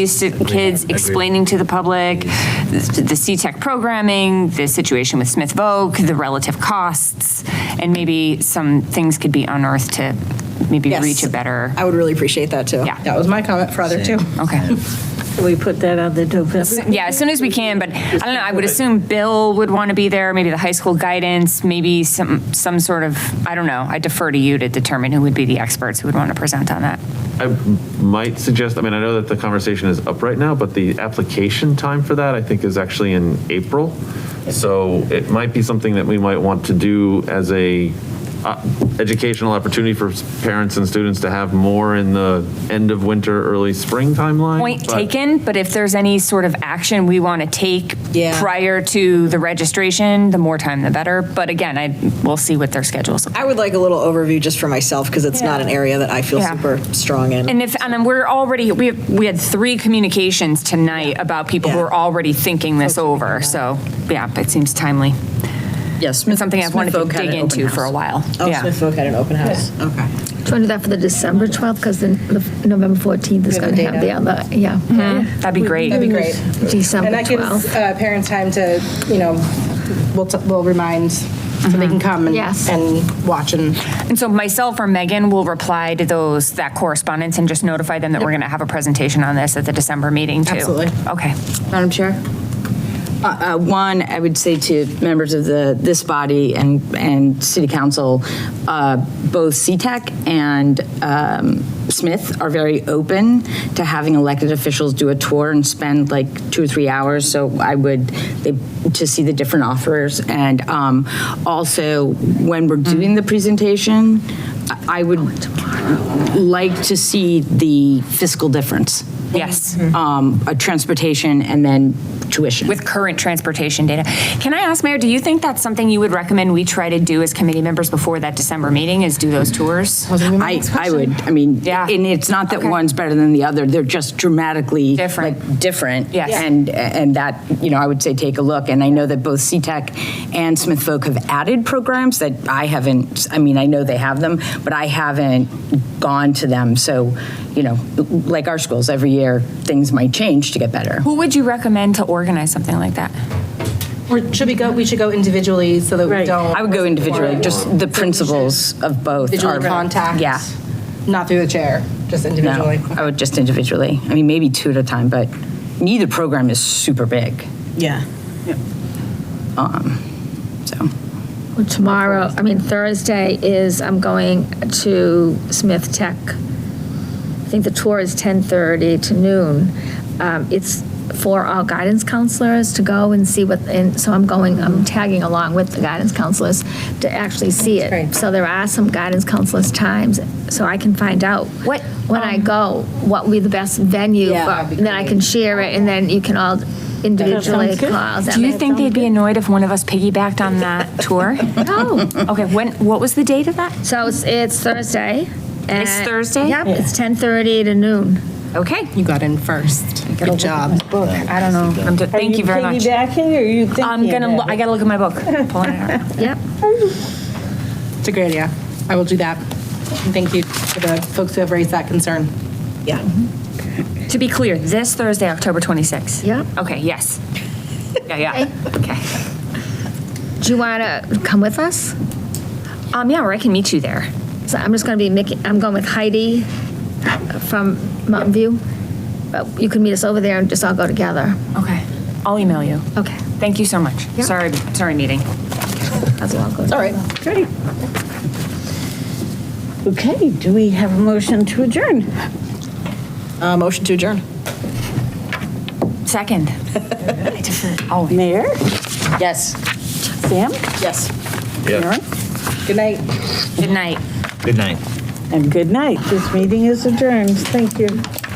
these stu- kids explaining to the public the C-Tech programming, the situation with Smith Voc, the relative costs, and maybe some things could be unearthed to maybe Yes. reach a better, I would really appreciate that, too. Yeah. That was my comment for other, too. okay. We put that on the November. Yeah, as soon as we can, but I don't know, I would assume Bill would want to be there, maybe the high school guidance, maybe some, some sort of, I don't know, I defer to you to determine who would be the experts who would want to present on that. I might suggest, I mean, I know that the conversation is up right now, but the application time for that, I think, is actually in April. So it might be something that we might want to do as a uh, educational opportunity for s- parents and students to have more in the end of winter, early spring timeline. Point but- taken, but if there's any sort of action we want to take Yeah. prior to the registration, the more time the better. But again, I, we'll see what their schedules. I would like a little overview just for myself, because it's not an area that I feel Yeah. super strong in. And if, and we're already, we, have- we had three communications tonight about people who Yeah. are already thinking this over, so, yeah, it seems timely. Yes. It's something I've wanted to dig into for a while. Oh, Yeah. Smith Folk had an open house. Okay. Do you want to do that for the December 12th, because then the November 14th is going to have the Mm-hmm. other, yeah. That'd be great. That'd be great. December And that gives 12th. uh, parents time to, you know, we'll, t- we'll remind, so Mm-hmm. they can come and, Yes. and watch and. And so myself or Megan will reply to those, that correspondence and just notify them that we're going to have a presentation on this at the December meeting too. Absolutely. Okay. Madam Chair? Uh, uh, One, I would say to members of the, this body and, and city council, uh, both CTEC and um, Smith are very open to having elected officials do a tour and spend like two or three hours. So I would, they- to see the different offers. And um, also, when we're doing the presentation, I I would like to see the fiscal difference. Yes. Um, uh, Transportation and then tuition. With current transportation data. Can I ask, Mayor, do you think that's something you would recommend we try to do as committee members before that December meeting is do those tours? I, I would, I mean, Yeah. and it's not that Okay. one's better than the other, they're just dramatically. Different. like, Different. Yes. And, and that, you know, I would say take a look, and I know that both CTEC and Smith Folk have added programs that I haven't, I mean, I know they have them, but I haven't gone to them, so, you know, like our schools, every year, things might change to get better. Who would you recommend to organize something like that? Or should we go, we should go individually so that we don't. I would go individually, just the principles of both. Individual are- contact. Yeah, Not through the chair, just no, individually. I would just individually, I mean, maybe two at a time, but neither program is super big. Um, Yeah. So, Well, Tomorrow, I mean, Thursday is, I'm going to Smith Tech. I think the tour is 10:30 to noon. Um, It's for all guidance counselors to go and see what, and so I'm going, I'm tagging along with the guidance counselors to actually see it. So there are some guidance counselors' times, so I can find out. What, um, When I go, what would be the best venue, Yeah, for- that'd be then I can share it, and then you can all individually call. Do you think they'd be annoyed if one of us piggybacked on that tour? No. Okay, when, what was the date of that? Oh, So it's, it's Thursday. It's and- Thursday? Yep, it's 10:30 to noon. Okay. You got in first. Good job. I don't know. I'm d- Thank you very much. Piggybacking or you thinking? I'm gonna, lo- I gotta look at my book. Pulling it out. Yep. It's a great idea. I will do that. And thank you to the folks who have raised that concern. Yeah. To be clear, this Thursday, October 26th? Yep. Okay, yes. Yeah, yeah. Okay. Do you want to come with us? Um, yeah, or I can meet you there. So I'm just going to be making, I'm going with Heidi from Mountain View. But you can meet us over there and just all go together. Okay. I'll email you. Okay. Thank you so much. Yep. Sorry, sorry meeting. How's it all going? All right. Great. Okay, do we have a motion to adjourn? Uh, Motion to adjourn. Second. Oh. Mayor, Yes. Sam, Yes. Karen, Good night. Good night. Good night. and good night. This meeting is adjourned. Thank you.